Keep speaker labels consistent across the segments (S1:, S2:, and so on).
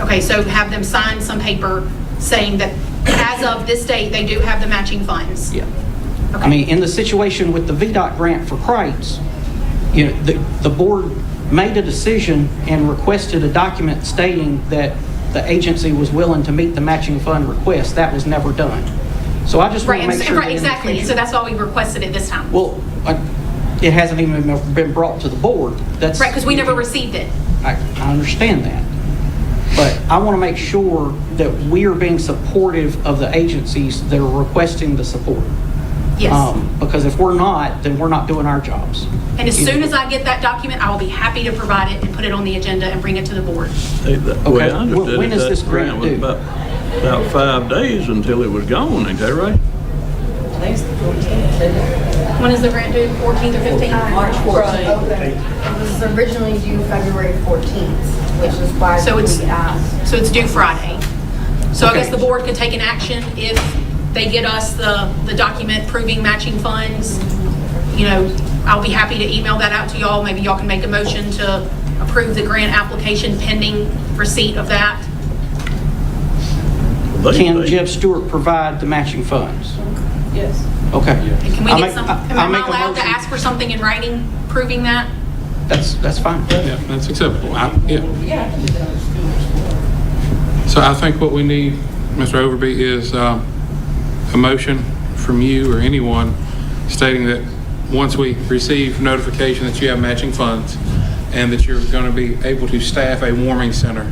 S1: Okay, so have them sign some paper saying that as of this date, they do have the matching funds?
S2: Yeah. I mean, in the situation with the VDOT grant for crates, you know, the, the board made a decision and requested a document stating that the agency was willing to meet the matching fund request. That was never done. So I just
S1: Right,
S2: want to make
S1: and-
S2: sure. that
S1: right,
S2: in the
S1: exactly, and so
S2: future-
S1: that's why we requested it this time.
S2: Well, I- it hasn't even been brought to the board. That's.
S1: Right, because we never received it.
S2: I, I understand that. But I want to make sure that we are being supportive of the agencies that are requesting the support.
S1: Yes.
S2: Um, Because if we're not, then we're not doing our jobs.
S1: And as soon as I get that document, I will be happy to provide it and put it on the agenda and bring it to the board.
S3: They- the way I
S2: Wh-
S3: understood
S2: when
S3: it,
S2: is this
S3: that grant
S2: grant
S3: was
S2: due?
S3: about, about five days until it was gone, ain't that right?
S1: When is the grant due, 14th or 15th?
S4: March 14th. It was originally due February 14th, which is why
S1: So it's-
S4: we asked.
S1: So it's due Friday. So I
S2: Okay.
S1: guess the board could take an action if they get us the, the document proving matching funds. You know, I'll be happy to email that out to y'all. Maybe y'all can make a motion to approve the grant application pending receipt of that.
S3: They-
S2: Can
S3: they-
S2: Jeb Stewart provide the matching funds?
S5: Yes.
S2: Okay.
S1: And can we
S2: I
S1: get
S2: make-
S1: some,
S2: I-
S1: am
S2: I
S1: I
S2: make a
S1: allowed to
S2: motion.
S1: ask for something in writing proving that?
S2: That's, that's fine.
S6: Yeah, that's acceptable. I- yeah. So I think what we need, Mr. Overby, is um, a motion from you or anyone stating that once we receive notification that you have matching funds and that you're going to be able to staff a warming center,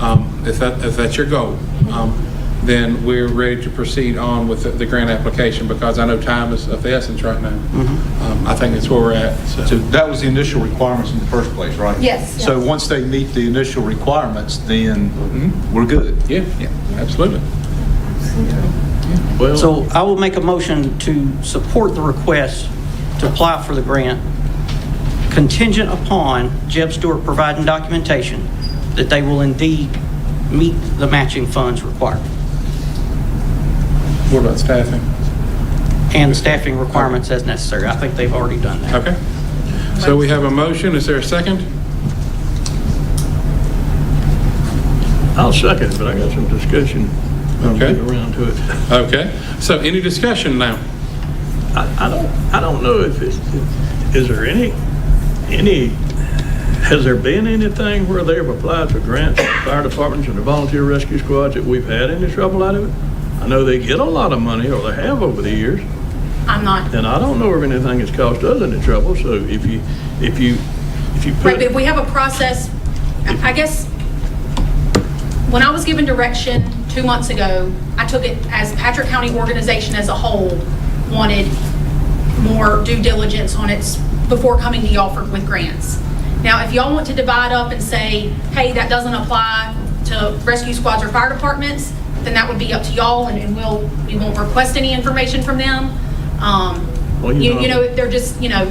S6: um, if that, if that's your goal, um, then we're ready to proceed on with the- the grant application because I know time is of the essence right now. Um, I think that's where we're at, so.
S7: So that was the initial requirements in the first place, right?
S4: Yes.
S7: So once they meet the initial requirements,
S4: Mm-hmm.
S7: then we're good.
S6: Yeah, absolutely.
S3: Well,
S2: So I will make a motion to support the request to apply for the grant contingent upon Jeb Stewart providing documentation that they will indeed meet the matching funds required
S6: What about staffing?
S2: and staffing requirements as necessary. I think they've already done that.
S6: Okay. So we have a motion. Is there a second?
S3: I'll second, it, but I got some discussion. I'll
S6: Okay.
S3: get around to it.
S6: Okay. So any discussion now?
S3: I, I don't, I don't know if it's, is there any, any, has there been anything where they've applied for grants, from fire departments and the volunteer rescue squads that we've had any trouble out of it? I know they get a lot of money, or they have over the years,
S1: I'm not.
S3: and I don't know if anything has caused us any trouble, so if you, if you, if you
S1: Right, but if
S3: put,
S1: we have a process, I I guess, when I was given direction two months ago, I took it as Patrick County organization as a whole wanted more due diligence on its, before coming to y'all for, with grants. Now, if y'all want to divide up and say, hey, that doesn't apply to rescue squads or fire departments, then that would be up to y'all and- and we'll, we won't request any information from them. Um,
S3: Well, you
S1: You you
S3: know-
S1: know, they're just, you know,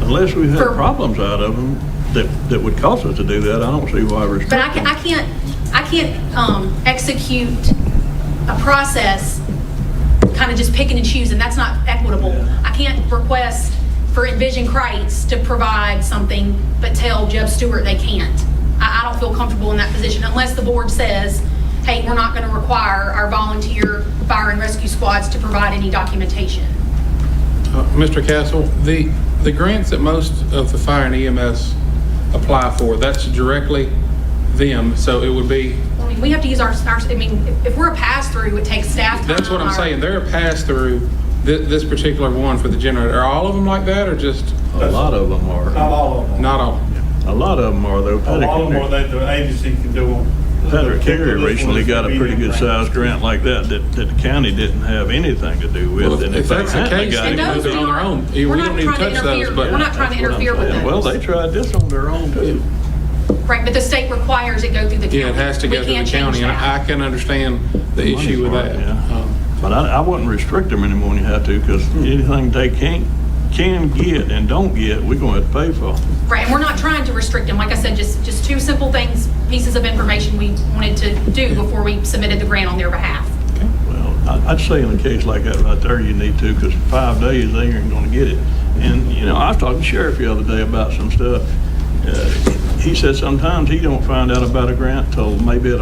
S3: unless we've had
S1: for-
S3: problems out of them that, that would cause us to do that, I don't see why we're.
S1: But I can't, I can't, I can't um, execute a process, kind of just picking and choosing, that's not equitable. I can't request for Envision Kreitz to provide something, but tell Jeb Stewart they can't. I, I don't feel comfortable in that position unless the board says, hey, we're not going to require our volunteer fire and rescue squads to provide any documentation.
S6: Uh, Mr. Castle, the, the grants that most of the fire and EMS apply for, that's directly them. So it would be,
S1: I mean, we have to use our, our- I mean, if- if we're a pass-through, it takes staff time.
S6: that's what I'm
S1: or-
S6: saying. They're a pass-through, thi- this particular one for the generator. Are all of them like that or just
S3: A lot of them
S8: Not
S3: are,
S8: all of them.
S6: not all?
S3: a lot of them are though.
S8: A lot of them
S3: Petticoat-
S8: are that the agency can do them.
S3: Patrick
S8: This
S3: Carey
S8: one
S3: recently
S8: is
S3: got a pretty
S8: medium
S3: good
S8: range.
S3: sized grant like that, that, that the county didn't have anything to do
S6: Well,
S3: with. and
S6: if
S3: they
S6: that's the
S3: hadn't, they
S6: case,
S3: got
S6: then
S3: it.
S1: And those
S6: They're on their
S1: aren't-
S6: own. Yeah,
S1: we're
S6: we
S1: not
S6: don't need to
S1: trying
S6: touch those,
S1: interfere-
S6: but-
S1: We're not trying to
S3: That's what I'm
S1: interfere with
S3: saying.
S1: those.
S3: Well, they tried this on their own too.
S1: Right, but the state requires it go through the county.
S6: Yeah, it has to
S1: We
S6: go through the
S1: can't change
S6: county and
S1: that.
S6: I can understand the
S3: Money's
S6: issue with
S3: hard,
S6: that.
S3: yeah.
S6: Um, Hmm.
S3: But I, I wouldn't restrict them anymore when you have to, because anything they can't, can get and don't get, we're gonna have to pay for.
S1: Right, and we're not trying to restrict them. Like I said, just, just two simple things, pieces of information we wanted to do before we submitted the grant on their behalf.
S3: Well, I- I'd say in a case like that right there, you need to, because five days, they ain't gonna get it. And, you know, I was talking to Sheriff the other day about some stuff. Uh, He said sometimes he don't find out about a grant till maybe at a